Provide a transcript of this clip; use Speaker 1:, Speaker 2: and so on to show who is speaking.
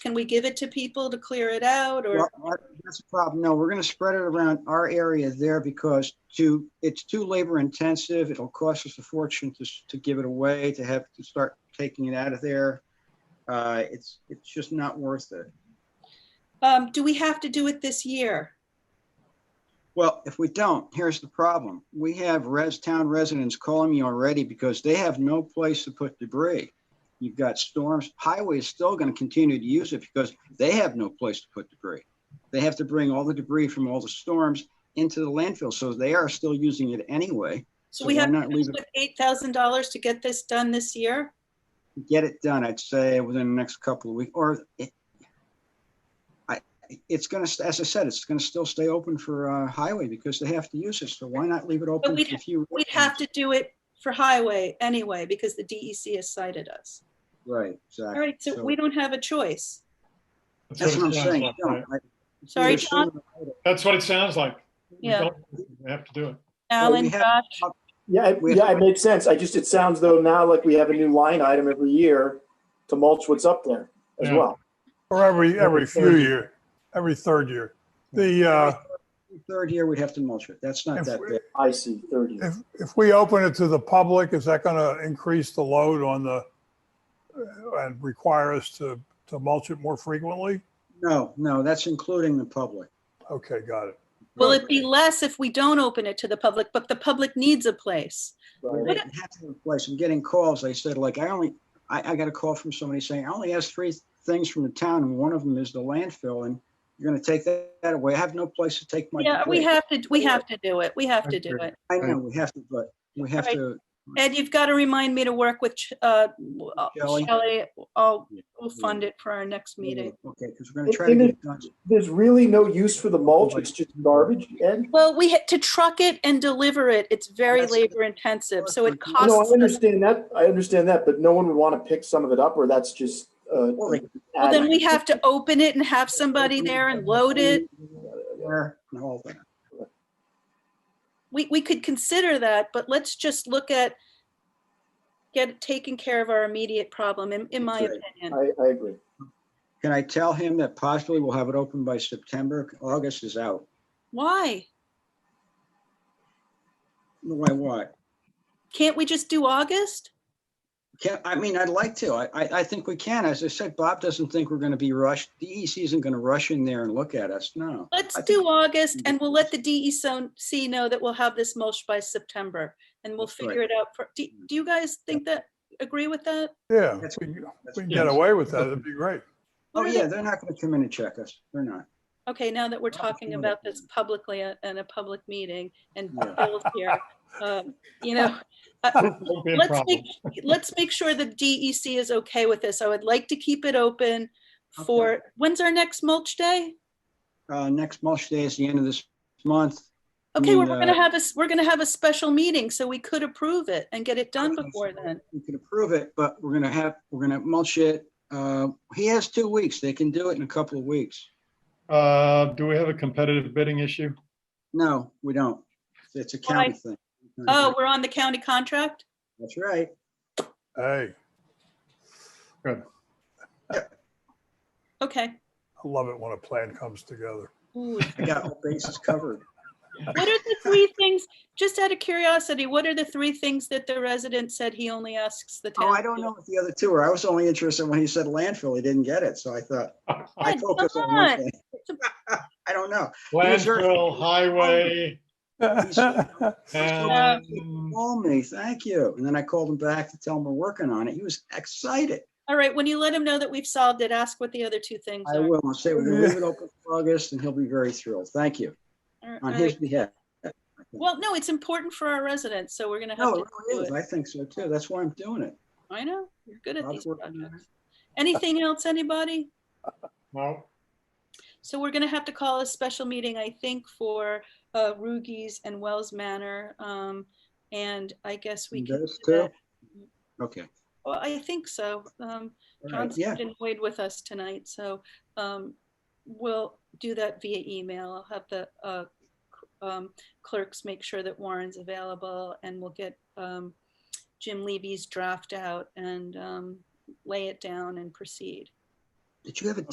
Speaker 1: Can we give it to people to clear it out or?
Speaker 2: Well, our- That's the problem. No, we're gonna spread it around our area there because to, it's too labor intensive. It'll cost us a fortune to, s- to give it away, to have to start taking it out of there. Uh, it's, it's just not worth it.
Speaker 1: Um, do we have to do it this year?
Speaker 2: Well, if we don't, here's the problem. We have res, town residents calling me already because they have no place to put debris. You've got storms, highway is still gonna continue to use it because they have no place to put debris. They have to bring all the debris from all the storms into the landfill, so they are still using it anyway.
Speaker 1: So
Speaker 2: So
Speaker 1: we
Speaker 2: why
Speaker 1: have to
Speaker 2: not leave it-
Speaker 1: put eight thousand dollars to get this done this year?
Speaker 2: Get it done, I'd say, within the next couple of weeks, or it, I, it's gonna, as I said, it's gonna still stay open for, uh, highway because they have to use it, so why not leave it open
Speaker 1: we'd
Speaker 2: for a few?
Speaker 1: We'd have to do it for highway anyway, because the DEC has cited us.
Speaker 2: Right, exactly.
Speaker 1: All right, so we don't have a choice.
Speaker 2: That's what I'm
Speaker 3: it sounds
Speaker 2: saying.
Speaker 3: like,
Speaker 2: Don't.
Speaker 3: right?
Speaker 2: I- it's
Speaker 1: Sorry,
Speaker 2: either sooner or later.
Speaker 3: That's what it sounds like. We
Speaker 1: Yeah.
Speaker 3: don't- We have to do it.
Speaker 1: Alan,
Speaker 2: have-
Speaker 1: Josh,
Speaker 4: Yeah, it-
Speaker 2: We-
Speaker 4: yeah, it makes sense. I just, it sounds though now like we have a new line item every year to mulch what's up there as
Speaker 3: Yeah.
Speaker 4: well.
Speaker 5: Or every,
Speaker 4: Every
Speaker 5: every
Speaker 4: third
Speaker 5: few year, every third year. The, uh,
Speaker 2: Third year, we'd have to mulch it. That's not
Speaker 5: if,
Speaker 2: that
Speaker 5: we-
Speaker 2: bad.
Speaker 4: I see, 30.
Speaker 5: if, if we open it to the public, is that going to increase the load on the, uh, and require us to, to mulch it more frequently?
Speaker 2: No, no, that's including the public.
Speaker 5: Okay, got it.
Speaker 1: will it be less if we don't open it to the public, but the public needs a place?
Speaker 2: We
Speaker 4: right?
Speaker 2: didn't have to replace. I'm getting calls. They said like, I only, I, I got a call from somebody saying, I only asked three things from the town and one of them is the landfill and you're gonna take that that away. I have no place to take my.
Speaker 1: Yeah, we
Speaker 2: debris."
Speaker 1: have to, we have to do it. We have to do it.
Speaker 2: I know, we have to, but we have
Speaker 1: Right.
Speaker 2: to,
Speaker 1: Ed, you've got to remind me to work with Ch- uh, uh,
Speaker 2: Shelley?
Speaker 1: Shelley. I'll,
Speaker 2: Yeah.
Speaker 1: we'll fund it for our next meeting.
Speaker 2: okay, because we're gonna try to
Speaker 4: In the-
Speaker 2: get it done.
Speaker 4: There's really no use for the mulch. It's just garbage, Ed?
Speaker 1: Well, we had to truck it and deliver it. It's very
Speaker 2: That's-
Speaker 1: labor intensive, so it
Speaker 2: No,
Speaker 4: No, I
Speaker 1: costs. us-
Speaker 4: understand that. I understand that, but no one would want to pick some of it up or that's just, uh.
Speaker 2: Well, they-
Speaker 1: Well, then we have to open it and have somebody there and load it.
Speaker 2: There and all that.
Speaker 1: We, we could consider that, but let's just look at get, taking care of our immediate problem, in, in my
Speaker 2: That's
Speaker 1: opinion.
Speaker 4: I, I agree.
Speaker 2: Can I tell him that possibly we'll have it open by September? August is out.
Speaker 1: Why?
Speaker 2: Why, what?
Speaker 1: Can't we just do August?
Speaker 2: Can, I mean, I'd like to. I, I, I think we can. As I said, Bob doesn't think we're gonna be rushed. DEC isn't gonna rush in there and look at us. No.
Speaker 1: Let's
Speaker 2: I think-
Speaker 1: do August and we'll let the DEC know that we'll have this mulch by September and we'll
Speaker 2: That's right.
Speaker 1: figure it out. for- Do, do you guys think that, agree with that?
Speaker 5: Yeah,
Speaker 2: That's-
Speaker 5: if we if
Speaker 2: That's-
Speaker 5: we can get away with that, it'd be great.
Speaker 2: Oh,
Speaker 1: What are
Speaker 2: yeah,
Speaker 1: the-
Speaker 2: they're not gonna come in and check us. They're not.
Speaker 1: Okay, now that we're
Speaker 2: Well,
Speaker 1: talking
Speaker 2: sure.
Speaker 1: about this publicly at- in a public meeting and
Speaker 2: Yeah.
Speaker 1: Bill's here, um, you know, uh,
Speaker 3: Won't be a
Speaker 1: let's
Speaker 3: problem.
Speaker 1: make, let's make sure the DEC is okay with this. I would like to keep it open for, when's our next mulch day?
Speaker 2: Uh, next mulch day is the end of this month.
Speaker 1: Okay, well,
Speaker 2: mean,
Speaker 1: we're gonna
Speaker 2: uh,
Speaker 1: have a, s- we're gonna have a special meeting, so we could approve it and get it done
Speaker 2: Okay,
Speaker 1: before
Speaker 2: so-
Speaker 1: then.
Speaker 2: We can approve it, but we're gonna have, we're gonna mulch it. Uh, he has two weeks. They can do it in a couple of weeks.
Speaker 3: Uh, do we have a competitive bidding issue?
Speaker 2: No, we don't. It's a county thing.
Speaker 1: Oh, we're on the county contract?
Speaker 2: That's right.
Speaker 5: Hey,
Speaker 1: Okay.
Speaker 5: I love it when a plan comes together.
Speaker 1: Ooh, What
Speaker 2: I got all bases covered.
Speaker 1: are the three things, just out of curiosity, what are the three things that the resident said he only asks the town?
Speaker 2: Oh, I don't know what the other two are. I was only interested when he said landfill, he didn't get it, so I thought, I
Speaker 1: Come
Speaker 2: focused on one
Speaker 1: on.
Speaker 2: thing. I don't know.
Speaker 3: Landfill, highway,
Speaker 2: Yeah.
Speaker 3: and
Speaker 2: Call me, thank you. And then I called him back to tell him we're working on it. He was excited.
Speaker 1: All right, when you let him know that we've solved it, ask what the other two things
Speaker 2: I
Speaker 1: are.
Speaker 2: will, I'll say we're gonna leave it open for August and he'll be very thrilled. Thank you,
Speaker 1: All right,
Speaker 2: on
Speaker 1: all
Speaker 2: his
Speaker 1: right.
Speaker 2: behalf.
Speaker 1: Well, no, it's important for our residents, so we're gonna have
Speaker 2: No,
Speaker 1: to
Speaker 2: it
Speaker 1: do
Speaker 2: really is.
Speaker 1: it.
Speaker 2: I think so too. That's why I'm doing it.
Speaker 1: I know, you're good at
Speaker 2: Bob's
Speaker 1: these
Speaker 2: working on it.
Speaker 1: projects. Anything else, anybody?
Speaker 3: no,
Speaker 1: So we're gonna have to call a special meeting, I think, for uh, Rugies and Wells Manor. um, And I guess we
Speaker 2: And
Speaker 1: can,
Speaker 2: those
Speaker 1: do that.
Speaker 2: two? Okay.
Speaker 1: well, I think so. Um,
Speaker 2: All right.
Speaker 1: John's
Speaker 2: Yeah,
Speaker 1: been weighed with us tonight, so um, we'll do that via email. I'll have the uh, c- um, clerks make sure that Warren's available and we'll get um, Jim Levy's draft out and um, lay it down and proceed.
Speaker 2: did you have a